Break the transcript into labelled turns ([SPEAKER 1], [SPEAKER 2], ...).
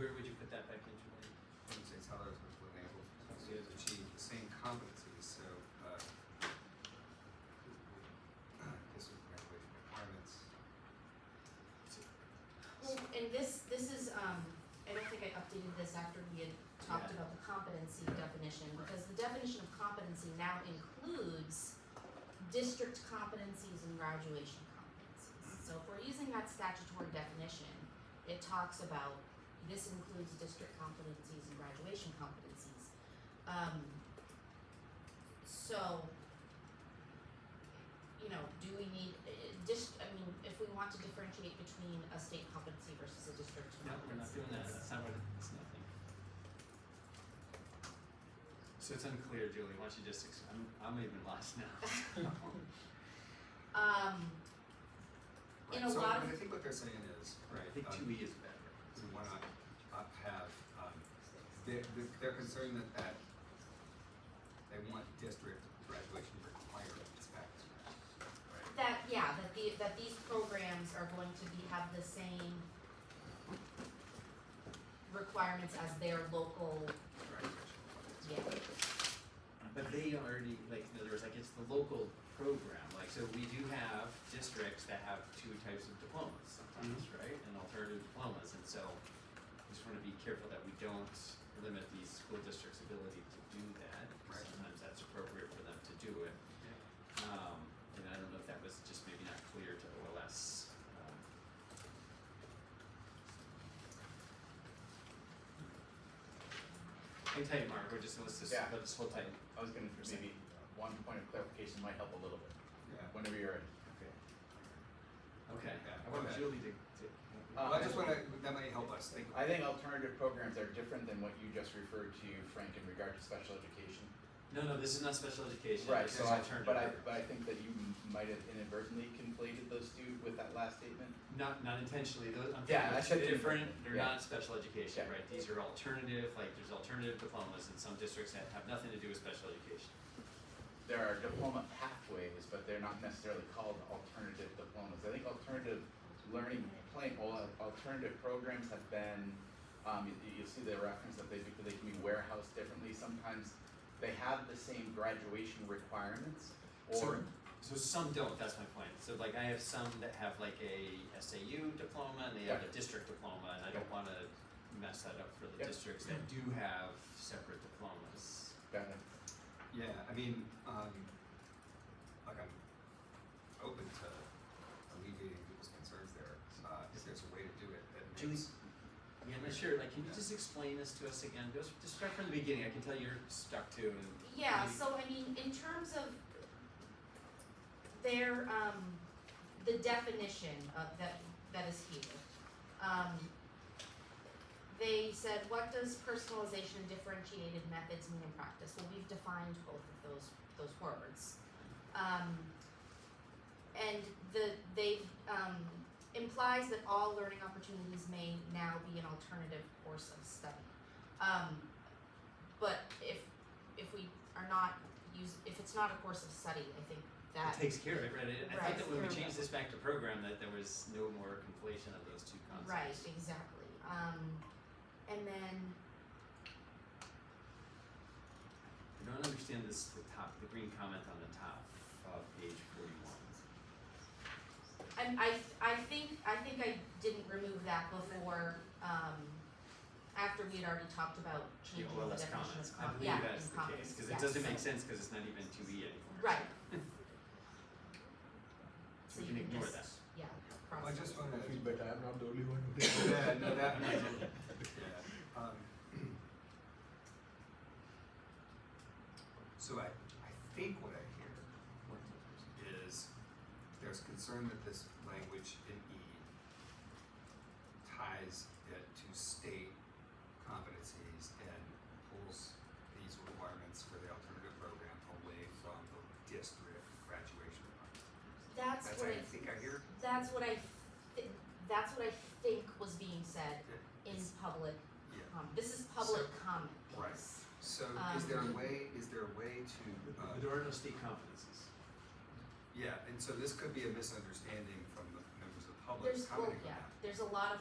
[SPEAKER 1] where would you put that back into it?
[SPEAKER 2] would say toddlers which will enable students to achieve the same competencies, so, uh, district graduation requirements.
[SPEAKER 3] Well, and this, this is, um, I don't think I updated this after we had talked
[SPEAKER 1] Yeah.
[SPEAKER 3] about the competency definition, because the definition of competency now includes district competencies and graduation competencies. So if we're using that statutory definition, it talks about, this includes district competencies and graduation competencies. Um, so, you know, do we need, uh, dis, I mean, if we want to differentiate between a state competency versus a district
[SPEAKER 1] No, we're not
[SPEAKER 3] competency,
[SPEAKER 1] doing that, that's not what, that's nothing. So it's unclear, Julie, why don't you just, ex- I'm, I'm even lost now.
[SPEAKER 3] Um,
[SPEAKER 2] Right,
[SPEAKER 3] In a
[SPEAKER 2] so
[SPEAKER 3] lot
[SPEAKER 2] I
[SPEAKER 3] of-
[SPEAKER 2] think what they're saying is,
[SPEAKER 1] Right, I
[SPEAKER 2] right,
[SPEAKER 1] think
[SPEAKER 2] um,
[SPEAKER 1] two E is better.
[SPEAKER 2] we wanna up uh, have, um, they're, they're- they're concerned that that, they want district graduation requirements back to that. Right.
[SPEAKER 3] that, yeah, that the, that these programs are going to be, have the same requirements as their local,
[SPEAKER 2] Graduation requirements.
[SPEAKER 3] yeah,
[SPEAKER 1] But they already, like, in other words, like, it's the local program, like, so we do have districts that have two types of diplomas sometimes, right? And alternative diplomas, and so we just wanna be careful that we don't limit the school district's ability to do that.
[SPEAKER 2] Right.
[SPEAKER 1] Sometimes that's appropriate for them to do it. Um, and I don't know if that was just maybe not clear to OLS, um, I can tell you, Mark, we're just, let's just,
[SPEAKER 4] Yeah.
[SPEAKER 1] let's hold tight.
[SPEAKER 4] I was gonna, maybe one point of clarification might help a little bit,
[SPEAKER 2] Yeah.
[SPEAKER 4] whenever you're ready.
[SPEAKER 2] Okay.
[SPEAKER 1] Okay,
[SPEAKER 2] Yeah,
[SPEAKER 1] I want
[SPEAKER 2] okay.
[SPEAKER 1] Julie to, to.
[SPEAKER 4] Uh,
[SPEAKER 2] Well, I just wanna, that might help us think.
[SPEAKER 4] I think alternative programs are different than what you just referred to, Frank, in regard to special education.
[SPEAKER 1] No, no, this is not special education,
[SPEAKER 4] Right,
[SPEAKER 1] this is
[SPEAKER 4] so I,
[SPEAKER 1] alternative.
[SPEAKER 4] but I, but I think that you m- might have inadvertently conflated those two with that last statement.
[SPEAKER 1] Not, not intentionally, those, I'm
[SPEAKER 4] Yeah,
[SPEAKER 1] talking
[SPEAKER 4] I said
[SPEAKER 1] about different,
[SPEAKER 4] different,
[SPEAKER 1] they're
[SPEAKER 4] yeah.
[SPEAKER 1] not special education,
[SPEAKER 4] Yeah.
[SPEAKER 1] right? These are alternative, like, there's alternative diplomas in some districts that have nothing to do with special education.
[SPEAKER 4] There are diploma pathways, but they're not necessarily called alternative diplomas. I think alternative learning, plain, al- alternative programs have been, um, you, you'll see the reference that they, they can be warehoused differently. Sometimes they have the same graduation requirements or
[SPEAKER 1] So some don't, that's my point. So like I have some that have like a SAU diploma and they have a district diploma and I don't wanna mess that up for the
[SPEAKER 4] Yeah.
[SPEAKER 1] districts that do have separate diplomas.
[SPEAKER 4] Got it.
[SPEAKER 2] Yeah, I mean, um, like I'm open to alleviating people's concerns there, uh, if there's a way to do it that
[SPEAKER 1] Julie,
[SPEAKER 2] makes.
[SPEAKER 1] Yeah, I'm not sure, like, can you just explain this to us again? Just, just start from the beginning, I can tell you're stuck to and.
[SPEAKER 3] Yeah,
[SPEAKER 1] maybe-
[SPEAKER 3] so I mean, in terms of their, um, the definition of that, that is here. Um, they said, what does personalization and differentiated methods mean in practice? Well, we've defined both of those, those words. Um, and the, they, um, implies that all learning opportunities may now be an alternative course of study. Um, but if if we are not use if it's not a course of study, I think that
[SPEAKER 1] It takes care of it, right? I- I
[SPEAKER 3] Right.
[SPEAKER 1] think that when we changed this back to program, that there was no more conflation of those two concepts.
[SPEAKER 3] right exactly. Um, and then
[SPEAKER 1] I don't understand this, the top, the green comment on the top of page forty-one.
[SPEAKER 3] and I I think I think I didn't remove that before um, after we had already talked about
[SPEAKER 1] Yeah,
[SPEAKER 3] changing
[SPEAKER 1] well,
[SPEAKER 3] the
[SPEAKER 1] that's
[SPEAKER 3] definition
[SPEAKER 1] comments,
[SPEAKER 3] of
[SPEAKER 1] I
[SPEAKER 3] com-
[SPEAKER 1] believe
[SPEAKER 3] yeah,
[SPEAKER 1] that's
[SPEAKER 3] in
[SPEAKER 1] the case,
[SPEAKER 3] comments,
[SPEAKER 1] cause
[SPEAKER 3] yeah,
[SPEAKER 1] it doesn't make
[SPEAKER 3] so-
[SPEAKER 1] sense, cause it's not even two E anymore.
[SPEAKER 3] Right.
[SPEAKER 1] So we can ignore
[SPEAKER 3] just-
[SPEAKER 1] that.
[SPEAKER 3] Yeah.
[SPEAKER 2] I
[SPEAKER 3] cross
[SPEAKER 2] just
[SPEAKER 3] it.
[SPEAKER 2] wanna,
[SPEAKER 5] but I'm not the only one who did.
[SPEAKER 2] yeah, no, that, yeah, um. So I, I think what I hear is there's concern that this language in E ties it to state competencies and pulls these requirements for the alternative program away from the district graduation requirement.
[SPEAKER 3] That's
[SPEAKER 2] That's
[SPEAKER 3] what
[SPEAKER 2] what
[SPEAKER 3] I
[SPEAKER 2] I think I hear.
[SPEAKER 3] that's what I thi- that's what I think was being said in
[SPEAKER 2] It's-
[SPEAKER 3] public
[SPEAKER 2] Yeah.
[SPEAKER 3] Um, this is public comment.
[SPEAKER 2] Right.
[SPEAKER 3] piece.
[SPEAKER 2] So is there a way, is there a way to, uh,
[SPEAKER 1] There are no state competencies.
[SPEAKER 2] yeah, and so this could be a misunderstanding from the members of the public
[SPEAKER 3] There's, well,
[SPEAKER 2] commenting on
[SPEAKER 3] yeah,
[SPEAKER 2] that.
[SPEAKER 3] there's a lot of